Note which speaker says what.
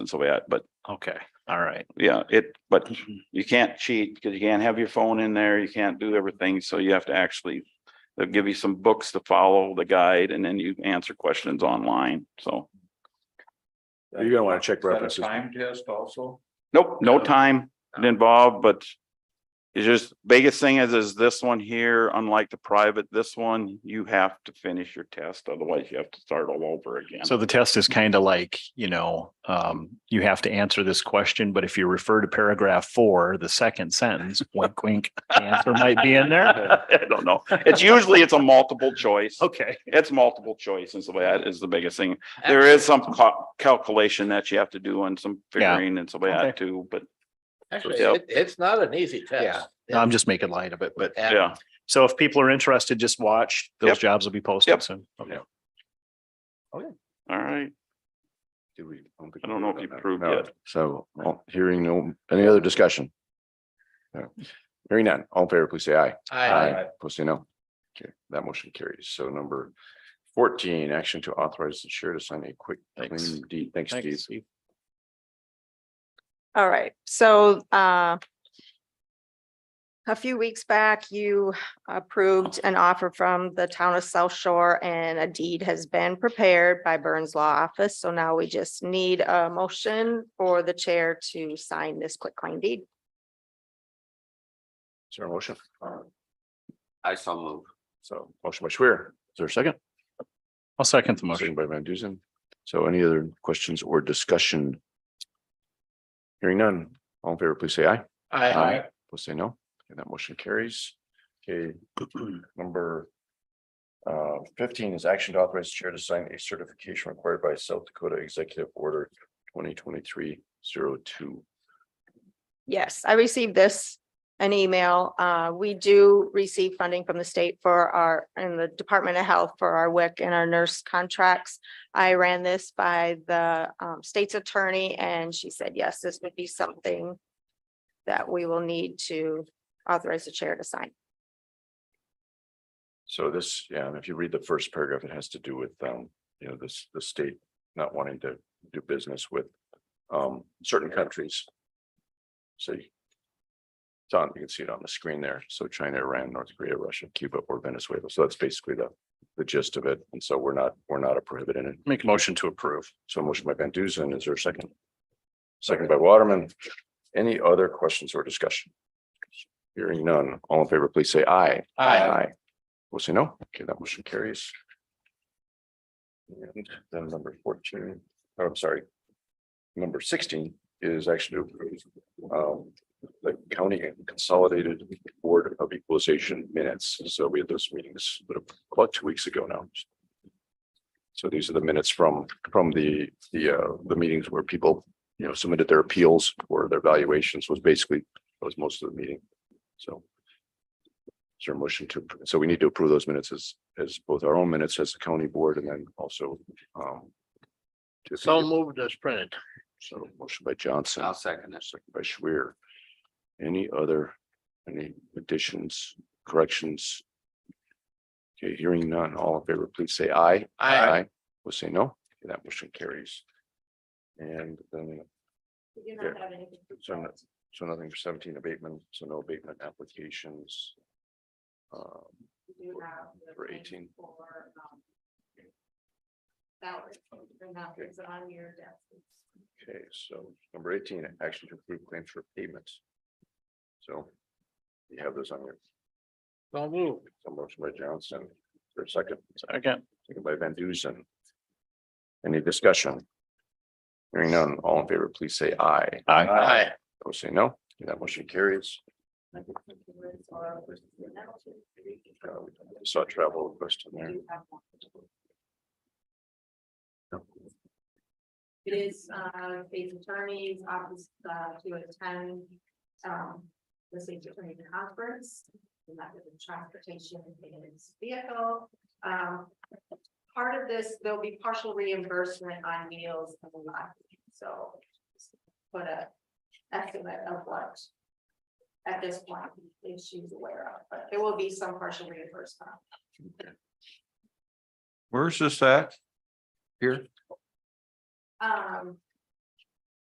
Speaker 1: so we had, but
Speaker 2: Okay, all right.
Speaker 1: yeah, it, but you can't cheat because you can't have your phone in there. You can't do everything. So you have to actually. They'll give you some books to follow the guide and then you answer questions online. So
Speaker 3: You're gonna wanna check
Speaker 4: Is that a
Speaker 3: references.
Speaker 4: Time test also?
Speaker 1: nope, no time involved, but. It's just biggest thing is, is this one here, unlike the private, this one, you have to finish your test. Otherwise you have to start all over again.
Speaker 2: So the test is kind of like, you know, um, you have to answer this question, but if you refer to paragraph four, the second sentence, wink, wink, the answer might be in there.
Speaker 1: I don't know. It's usually, it's a multiple choice.
Speaker 2: Okay.
Speaker 1: It's multiple choice and so that is the biggest thing. There is some cal- calculation that you have to do and some
Speaker 2: Yeah.
Speaker 1: figuring and so that
Speaker 2: Okay.
Speaker 1: too, but
Speaker 5: Actually,
Speaker 1: Yep.
Speaker 5: it, it's not an easy
Speaker 2: Yeah.
Speaker 5: test.
Speaker 2: I'm just making light of it, but
Speaker 5: And-
Speaker 1: yeah.
Speaker 2: so if people are interested, just watch. Those
Speaker 1: Yep.
Speaker 2: jobs will be posted
Speaker 1: Yep.
Speaker 2: soon. Okay.
Speaker 1: All right.
Speaker 3: Did we- don't think
Speaker 1: I
Speaker 3: we
Speaker 1: don't know if you
Speaker 3: voted on that.
Speaker 1: approved
Speaker 3: No.
Speaker 1: yet.
Speaker 3: So, all- hearing no, any other discussion? No. Hearing none, all in favor, please say aye.
Speaker 5: I,
Speaker 3: Opposed, say no. Okay, that motion carries. So number fourteen, action to authorize the chair to sign a quick
Speaker 2: Thanks.
Speaker 3: claim deed. Thanks, Steve.
Speaker 2: Thanks, Steve.
Speaker 6: All right, so uh. A few weeks back, you approved an offer from the town of South Shore and a deed has been prepared by Burns Law Office. So now we just need a motion for the chair to sign this quitclaim deed.
Speaker 3: Is there a motion?
Speaker 4: I saw move.
Speaker 3: So motion by Schwer, is there a second?
Speaker 2: I'll second the motion.
Speaker 3: Second by Van Dusen. So any other questions or discussion? Hearing none, all in favor, please say aye.
Speaker 5: I,
Speaker 3: We'll say no, and that motion carries. Okay, number. Uh, fifteen is action to authorize the chair to sign a certification required by South Dakota Executive Order twenty twenty-three zero two.
Speaker 6: Yes, I received this, an email. Uh, we do receive funding from the state for our, and the Department of Health for our WIC and our nurse contracts. I ran this by the um, state's attorney and she said, yes, this would be something that we will need to authorize the chair to sign.
Speaker 3: So this, yeah, and if you read the first paragraph, it has to do with, um, you know, this, the state not wanting to do business with, um, certain countries. So you. It's on, you can see it on the screen there. So China, Iran, North Korea, Russia, Cuba, or Venezuela. So that's basically the, the gist of it. And so we're not, we're not a prohibited. en-
Speaker 2: Make a motion to approve.
Speaker 3: So motion by Van Dusen, is there a second? Second by Waterman. Any other questions or discussion? Hearing none, all in favor, please say aye.
Speaker 5: I,
Speaker 3: We'll say no. Okay, that motion carries. And then number fourteen, oh, I'm sorry. Number sixteen is actually to approve, um, the county consolidated board of equalization minutes. So we had those meetings about two weeks ago now. So these are the minutes from, from the, the, uh, the meetings where people, you know, submitted their appeals or their valuations was basically, that was most of the meeting. So. Is there a motion to, so we need to approve those minutes as, as both our own minutes as the county board and then also, um. to-
Speaker 5: so moved as printed.
Speaker 3: So motion by Johnson,
Speaker 4: I'll second it.
Speaker 3: second by Schwer. Any other, any additions, corrections? Okay, hearing none, all in favor, please say aye.
Speaker 5: I,
Speaker 3: We'll say no, Okay, that motion carries. And then,
Speaker 6: We
Speaker 3: not Yeah.
Speaker 6: have anything.
Speaker 3: so, no- so nothing for seventeen abatement, so no abatement applications. Um, For thing 18.
Speaker 6: um,
Speaker 3: things okay, so number eighteen, action to approve claims for payment. So you have those on your,
Speaker 5: so moved.
Speaker 3: so motion by Johnson, for a second.
Speaker 2: Second.
Speaker 3: Second by Van Dusen. Any discussion? Hearing none, all in favor, please say aye.
Speaker 2: Aye.
Speaker 5: I,
Speaker 3: Those say no, that motion carries. Uh, we Saw travel request in there.
Speaker 6: It is, uh, state's attorney's office, uh, to attend, um, the state's attorney conference. And that is in transportation in his vehicle, um. Part of this, there'll be partial reimbursement on meals and the like, so. Put a estimate of what. At this point, if she's aware of, but there will be some partial reimbursement.
Speaker 4: Where's this at? Here?
Speaker 6: Um,